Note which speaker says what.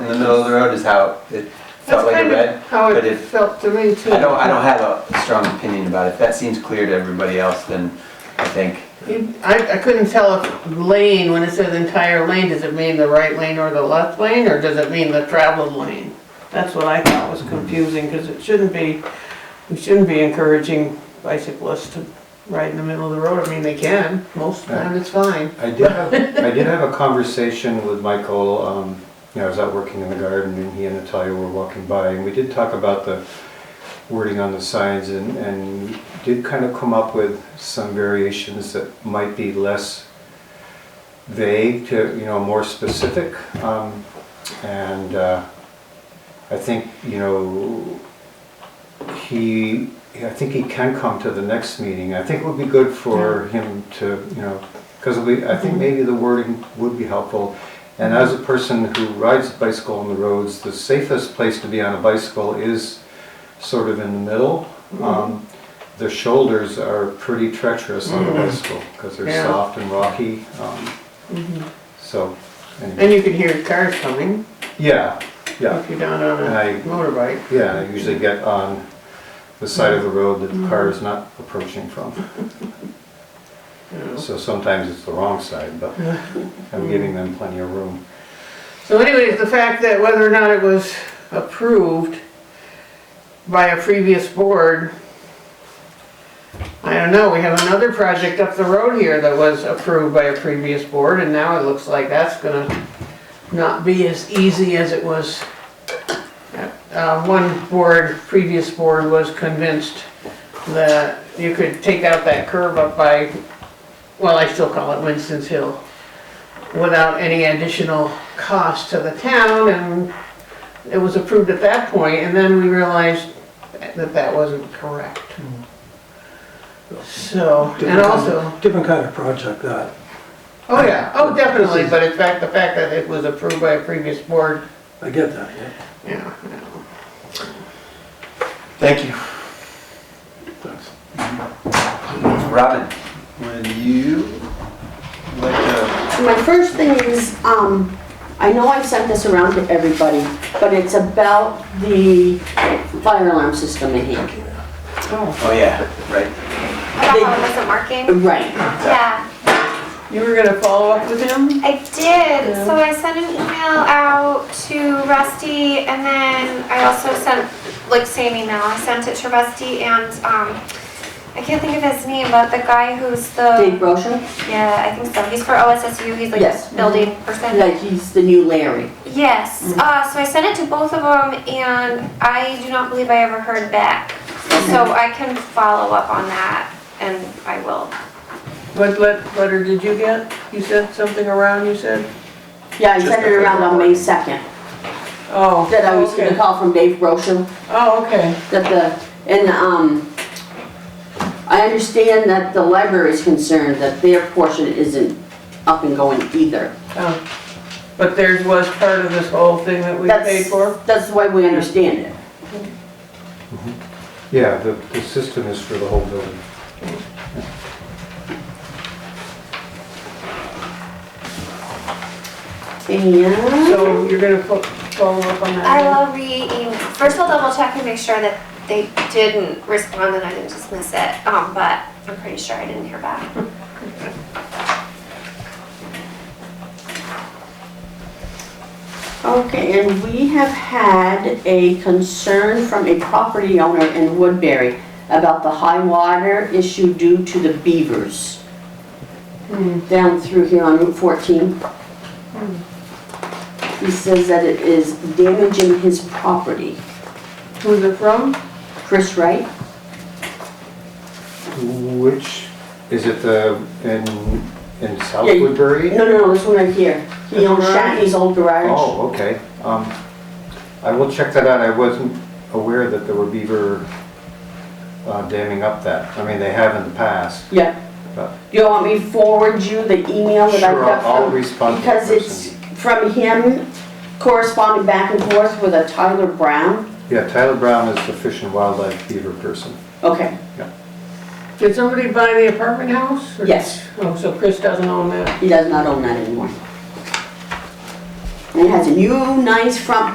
Speaker 1: the middle of the road is how it felt
Speaker 2: That's
Speaker 1: like it
Speaker 2: kind
Speaker 1: read.
Speaker 2: of how
Speaker 1: but
Speaker 2: it
Speaker 1: if-
Speaker 2: felt to me too.
Speaker 1: I don't, I don't have a strong opinion about it. If that seems clear to everybody else, then I think,
Speaker 2: You- I, I couldn't tell if lane, when it says entire lane, does it mean the right lane or the left lane, or does it mean the traveled lane? That's what I thought was confusing, because it shouldn't be, we shouldn't be encouraging bicyclists to ride in the middle of the road. I mean, they can, most of the time it's fine.
Speaker 3: I did have, I did have a conversation with Michael, um, you know, I was out working in the garden and he and Natalia were walking by and we did talk about the wording on the signs and, and did kind of come up with some variations that might be less vague to, you know, more specific. Um, and, uh, I think, you know, he, I think he can come to the next meeting. I think it would be good for him to, you know, because we, I think maybe the wording would be helpful. And as a person who rides a bicycle on the roads, the safest place to be on a bicycle is sort of in the middle. Um, The shoulders are pretty treacherous on a bicycle because they're
Speaker 2: Yeah.
Speaker 3: soft and rocky. Um, So, anyway,
Speaker 2: And you can hear cars coming
Speaker 3: yeah, yeah.
Speaker 2: if you're down on
Speaker 3: And I
Speaker 2: a motorbike.
Speaker 3: yeah, I usually get on the side of the road that the car is not approaching from.
Speaker 2: you know.
Speaker 3: So sometimes it's the wrong side, but I'm giving them plenty of room.
Speaker 2: So anyways, the fact that whether or not it was approved by a previous board, I don't know, we have another project up the road here that was approved by a previous board, and now it looks like that's gonna not be as easy as it was. Uh, one board, previous board was convinced that you could take out that curve up by, well, I still call it Winston's Hill without any additional cost to the town, and it was approved at that point, and then we realized that that wasn't correct. So, and
Speaker 4: Different kind of-
Speaker 2: also.
Speaker 4: Different kind of project, that.
Speaker 2: Oh, yeah, oh, definitely, but in fact, the fact that it was approved by a previous board,
Speaker 4: I get that, yeah.
Speaker 2: yeah.
Speaker 1: thank you.
Speaker 4: Thanks.
Speaker 1: Robin, would you like to?
Speaker 5: My first thing is, um, I know I've sent this around to everybody, but it's about the fire alarm system in here.
Speaker 1: Oh, yeah, right.
Speaker 6: I thought it wasn't working.
Speaker 5: Right.
Speaker 6: Yeah,
Speaker 2: You were gonna follow up with him?
Speaker 6: I did. So I sent an email out to Rusty, and then I also sent like same email. I sent it to Rusty and um, I can't think of his name, but the guy who's
Speaker 5: Dave
Speaker 6: the
Speaker 5: Brocia,
Speaker 6: yeah, I think so. He's for OSSU. He's like
Speaker 5: Yes. Mm-hmm.
Speaker 6: building person.
Speaker 5: like he's the new Larry.
Speaker 6: Yes.
Speaker 5: Mm-hmm.
Speaker 6: Uh, so I sent it to both of them, and I do not believe I ever heard back. So
Speaker 5: Mm-hmm.
Speaker 6: I can follow up on that, and I will.
Speaker 2: What let, letter did you get? You sent something around, you said?
Speaker 5: Yeah, I sent it around on May 2nd,
Speaker 2: Oh.
Speaker 5: that I was gonna
Speaker 2: okay.
Speaker 5: call from Dave Brocia,
Speaker 2: Oh, okay.
Speaker 5: that the, and, um, I understand that the library is concerned that their portion isn't up and going either.
Speaker 2: Oh. But theirs was part of this whole thing that we paid
Speaker 5: That's
Speaker 2: for?
Speaker 5: That's the way we understand it.
Speaker 3: Yeah, the, the system is for the whole building.
Speaker 5: And.
Speaker 2: So you're gonna fo- follow up on that?
Speaker 6: I will re-email. First, I'll double check and make sure that they didn't respond and I didn't dismiss it. Um, but I'm pretty sure I didn't hear back.
Speaker 5: Okay, and we have had a concern from a property owner in Woodbury about the high water issue due to the beavers down through here on Route 14. He says that it is damaging his property.
Speaker 2: Who's it from?
Speaker 5: Chris Wright?
Speaker 3: Which, is it the, in, in South
Speaker 5: Yeah, you-
Speaker 3: Woodbury?
Speaker 5: No, no, no, this one right here. He owns Shatney's old garage.
Speaker 3: Oh, okay. Um, I will check that out. I wasn't aware that there were beaver uh, damming up that. I mean, they have in the past.
Speaker 5: Yeah.
Speaker 3: But-
Speaker 5: Do you want me to forward you the email that
Speaker 3: Uh.
Speaker 5: I
Speaker 3: Sure,
Speaker 5: got
Speaker 3: I'll
Speaker 5: from?
Speaker 3: respond to the
Speaker 5: Because it's from him corresponding back and forth with a Tyler Brown.
Speaker 3: Yeah, Tyler Brown is the Fish and Wildlife Beaver person.
Speaker 5: Okay,
Speaker 2: Did somebody buy the apartment house? or-
Speaker 5: Yes.
Speaker 2: Oh, so Chris doesn't own that?
Speaker 5: he does not own that anymore. And and it has a new nice front